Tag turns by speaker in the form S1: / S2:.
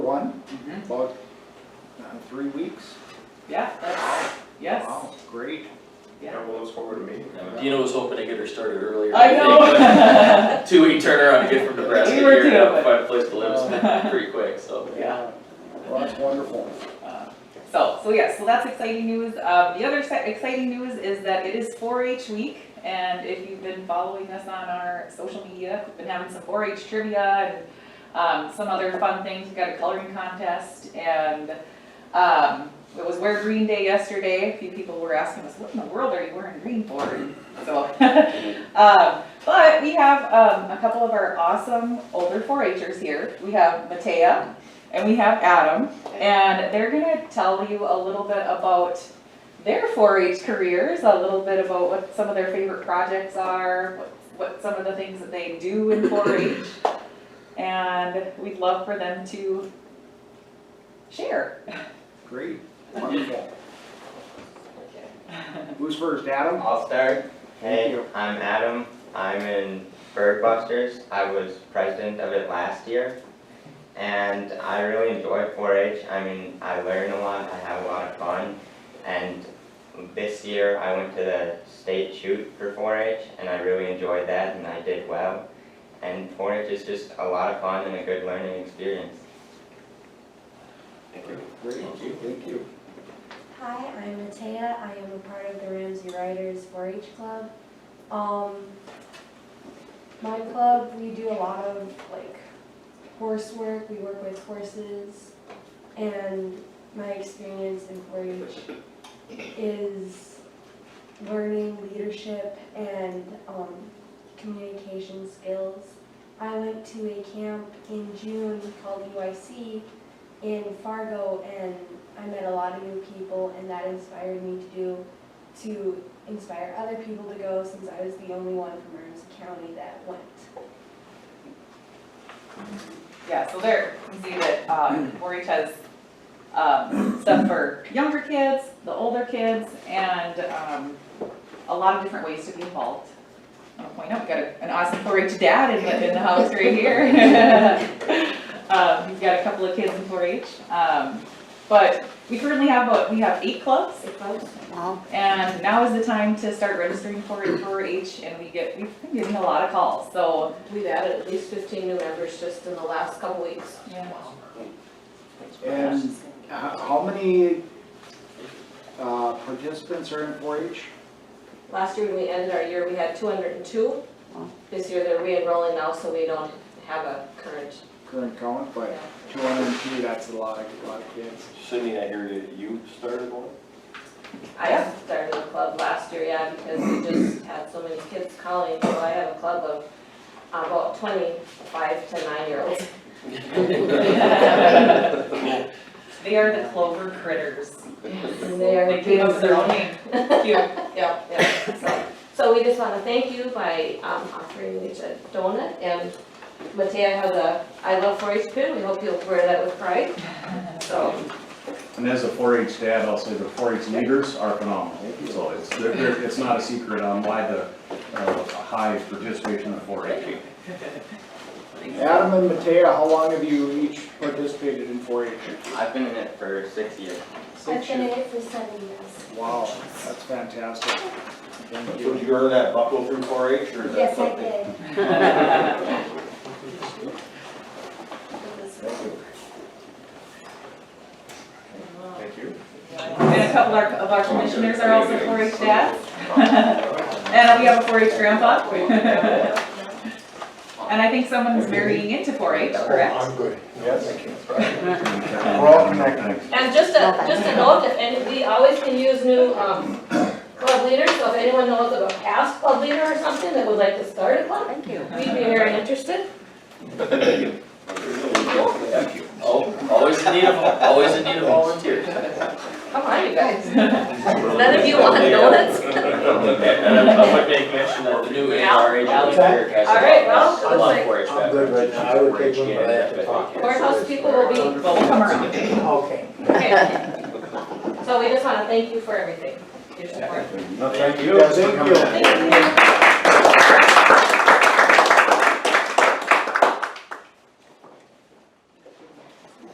S1: uh, three weeks?
S2: Mm-hmm. Yeah, that's, yes,
S1: Wow, great.
S2: yeah.
S3: we'll look forward to meeting them.
S4: Dina was hoping to get her started earlier.
S2: I know.
S4: Two week turnaround to get from Nebraska
S2: We were
S4: here
S2: too,
S4: and
S2: but-
S4: find a place to live is pretty quick, so.
S2: Yeah.
S1: Well, that's wonderful.
S2: Uh, So, so yeah, so that's exciting news. Um, the other se- exciting news is that it is four H week, and if you've been following us on our social media, we've been having some four H trivia and, um, some other fun things. We've got a coloring contest and, um, it was Wear Green Day yesterday. A few people were asking us, what in the world are you wearing green for? And So, um, but we have, um, a couple of our awesome older four Hers here. We have Matea and we have Adam. And they're gonna tell you a little bit about their four-H careers, a little bit about what some of their favorite projects are, what, what some of the things that they do in four-H. And we'd love for them to share.
S1: Great, wonderful. Who's first, Adam?
S5: I'll start.
S1: Thank
S5: Hey,
S1: you.
S5: I'm Adam. I'm in Bird Busters. I was president of it last year. And I really enjoy 4-H. I mean, I learn a lot, I have a lot of fun. And this year, I went to the state shoot for 4-H, and I really enjoyed that, and I did well. And 4-H is just a lot of fun and a good learning experience.
S1: Great, thank you.
S6: Hi, I'm Matea. I am a part of the Ramsey Riders 4-H Club. Um, my club, we do a lot of like horse work. We work with horses, and my experience in 4-H is learning leadership and um, communication skills. I went to a camp in June called UIC in Fargo and I met a lot of new people and that inspired me to do to inspire other people to go since I was the only one from Ramsey County that went.
S2: Yeah, so there, you can see that, um, four-H has, um, stuff for younger kids, the older kids, and, um, a lot of different ways to be involved. I'll point out, we got a- an awesome four-H dad in the, in the house right here. Um, he's got a couple of kids in four-H, um, but we currently have, what, we have eight clubs,
S6: It was
S2: and now is the time to start registering for, for H, and we get, we've been getting a lot of calls, so,
S7: We've added at least fifteen new members just in the last couple weeks.
S2: yeah.
S1: And h- how many uh, participants are in four H?
S7: Last year, when we ended our year, we had two hundred and two. This year, they're re-enrolling now, so we don't have a current.
S1: Current count, but two hundred and two, that's a lot, a lot of kids.
S3: Cindy, I hear you, you started one?
S7: I started a club last year, yeah, because we just had so many kids calling, so I have a club of about twenty-five to nine-year-olds.
S2: They are the clover critters.
S7: And they are.
S2: They came up with their own name. Cute.
S7: Yeah, yeah, so, so we just wanna thank you by, um, offering each a donut, and Matea has a, I love four-H pin, we hope you'll wear that with pride, so.
S8: And as a 4-H dad, I'll say the 4-H leaders are phenomenal. So it's, they're- they're- it's not a secret on why the uh, high participation in 4-H.
S1: Adam and Matea, how long have you each participated in four H?
S5: I've been in it for six years.
S6: I've been in it for seven years.
S1: Wow, that's fantastic. Thank you.
S3: Did you go to that Buffalo through 4-H or is that
S6: Yes, I
S3: something?
S6: did. It was-
S3: Thank you.
S2: And a couple of our- of our commissioners are also four H dads. And we have a four H grandpa. And I think someone's marrying into four H, correct?
S3: good. Yes.
S8: We're
S3: all connected.
S7: And just a, just a note, if any, we always can use new, um, club leaders, so if anyone knows of a past club leader or something that would like to start a club. Thank you. We'd be very interested.
S4: Oh, always in need of, always in need of volunteers.
S7: Come on, you guys. None of you want donuts?
S4: And I'm, I'm gonna make mention that the new A R agent
S7: Yeah.
S4: is here, guys.
S7: All right, well, it
S4: I
S7: looks
S4: love
S7: like-
S4: 4-H
S9: I'm good right now. I would take one, but I have to talk.
S7: Courthouse people will be,
S2: Well, we'll come around.
S9: Okay.
S7: okay. So we just wanna thank you for everything, your support.
S3: No, thank
S1: you. Thank you.
S7: Thank you.